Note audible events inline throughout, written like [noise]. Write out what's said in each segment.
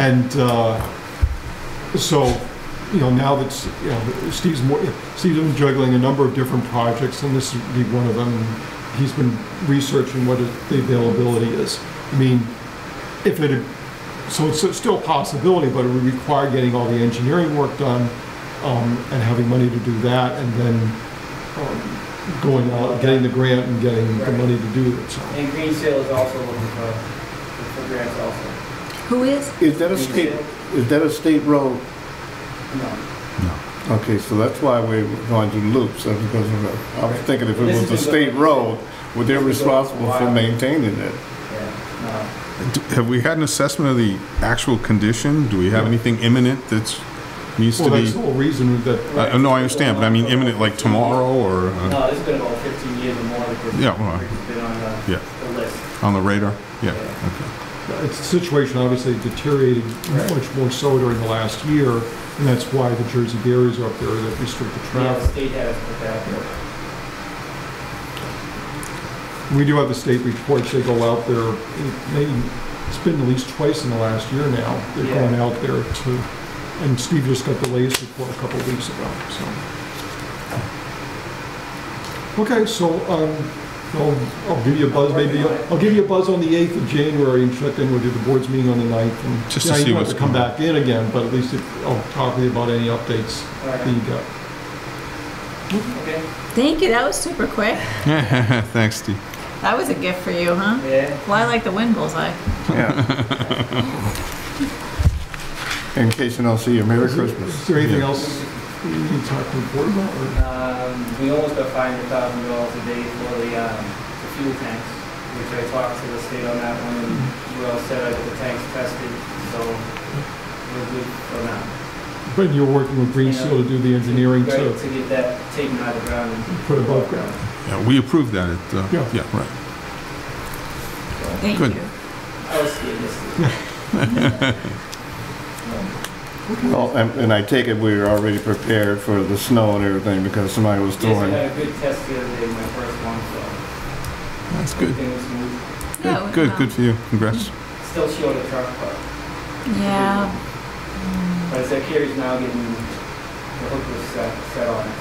And uh, so, you know, now that, you know, Steve's more, Steve's been juggling a number of different projects, and this would be one of them. He's been researching what the availability is. I mean, if it, had- so it's still a possibility, but it would require getting all the engineering work done um, and having money to do that, and then um, going out, getting the grant and getting the Right. money to do it, so. And Green Seal is also looking for, for grants also. Who is? Is that a state, is that a state road? No. Okay, so that's why we're going to do loops, uh, because of the- I was thinking if it was a state road, well, they're responsible for maintaining it. Yeah, D- Have we had an assessment of the actual condition? Do we have anything imminent that's, needs to Well, that's the be? whole reason that, whole- I- No, I understand, but I mean imminent like tomorrow or no. uh, No, it's been about 15 years or more. that we've- Yeah, well, we've Been on yeah. the, the list. on the radar? Yeah, Yeah. okay. it's the situation obviously deteriorated much more so during the last year, and that's why the Jersey barriers are up there that restrict the Yeah, the traffic. state has put that. We do have the state reports, they go out there, it may- it's been at least twice in the last year now, they're Yeah. going out there to, and Steve just got the latest report a couple of weeks ago, so. Okay, so, um, I'll, I'll give you a buzz, maybe, I'll give you a buzz on the 8th of January and check in, we'll do the board's meeting on the 9th. and- Just to Yeah, you see don't have what's Come going on. back in again, but at least if- I'll talk to you about any updates that you Alright, got. okay, Thank you, that was super quick. [laughs] Thanks, Steve. That was a gift for you, huh? yeah. Fly like the wind bullseye. Yeah. In case you don't see you, Merry Is Christmas. there anything Yeah. else you need to talk to the board about, or? Um, we almost got five hundred thousand dollars a day for the, um, the fuel tanks, which I talked to the state on that one, and we all said I got the tanks tested, so we're good for now. But you're working with Green Seal to do the engineering Right, to To get that taken out of the ground and. put above ground. Yeah, we approved that at, uh, Yeah. yeah, right. Thank Good. you. I was scared this. Oh, and, and I take it we were already prepared for the snow and everything, because somebody was Yes, I throwing. had a good test the other day, my first one, so That's good. everything was smooth. Yeah, Good, we- good, good for you. Congrats. Still short of truck, but, Yeah, but as that carries now getting, the hook was set, set on it, so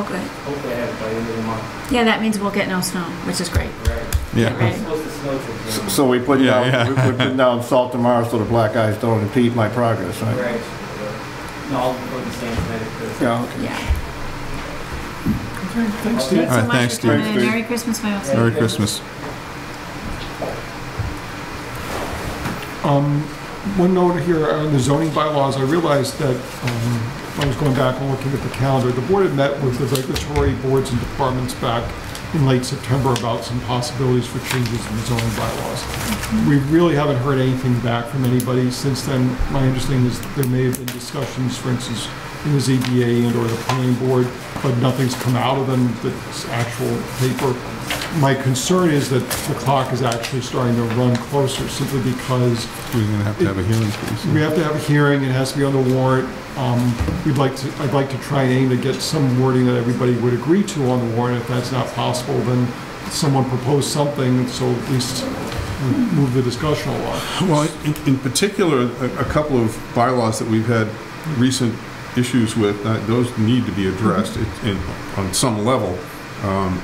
okay. hopefully I have it by the end of the month. oh, Yeah, that means we'll get no snow, which is great. Right. Yeah. Right. It's supposed to snow till June. So we put Yeah, yeah. down, we put down salt tomorrow so the black guys don't impede my progress, right? Right. No, I'll go the same tonight, because Yeah, okay. Yeah. Thanks, Steve. Thanks so right, much thanks, for coming Steve. in. Merry Christmas, my old. Merry Christmas. Um, One note here on the zoning bylaws, I realized that, um, when I was going back and looking at the calendar, the board had met with the regulatory boards and departments back in late September about some possibilities for changes in the zoning bylaws. We really haven't heard anything back from anybody since then. My understanding is that there may have been discussions, for instance, in the ZBA and/or the planning board, but nothing's come out of them that's actual paper. My concern is that the clock is actually starting to run closer simply because We're gonna have to have a hearing pretty soon. we have to have a hearing, it has to be on the warrant. Um, We'd like to, I'd like to try and aim to get some wording that everybody would agree to on the warrant. If that's not possible, then someone propose something, so at least move the discussion along. Well, in, in particular, a, a couple of bylaws that we've had recent issues with, uh, those need to be addressed Mm-hmm. it- in, on some level. Um,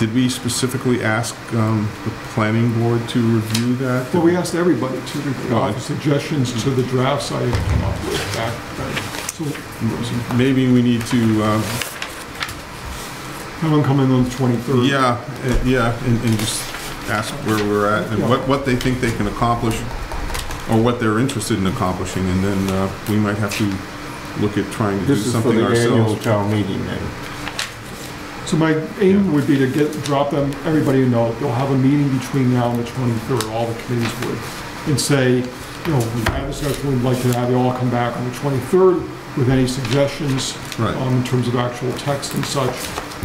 did we specifically ask, um, the planning board to review that? Well, we asked everybody to Well, offer I- suggestions to the drafts I had come up with back then. So Maybe we need to, um, have them come in on the 23rd. yeah, uh, yeah, and, and just ask where we're at and what, what they think they can accomplish or what they're interested in accomplishing, and then, uh, we might have to look at trying to do This is for something the annual ourselves. town meeting then. So my aim would be to get, drop them, everybody to know, they'll have a meeting between now and the 23rd, all the committees would, and say, you know, we had a discussion, we'd like to have you all come back on the 23rd with any suggestions Right. um, in terms of actual text and such.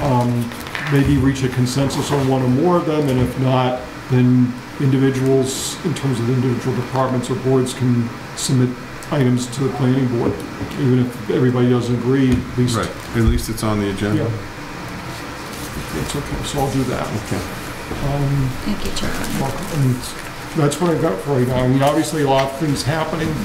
Um, Maybe reach a consensus on one or more of them, and if not, then individuals, in terms of individual departments or boards, can submit items to the planning board, even if everybody doesn't agree, at least Right, at least it's on the agenda. yeah. It's okay, so I'll do that. Okay. Um, Thank you, Charlie. welcome. And that's what I've got for you now. I mean, obviously, a lot of things happening,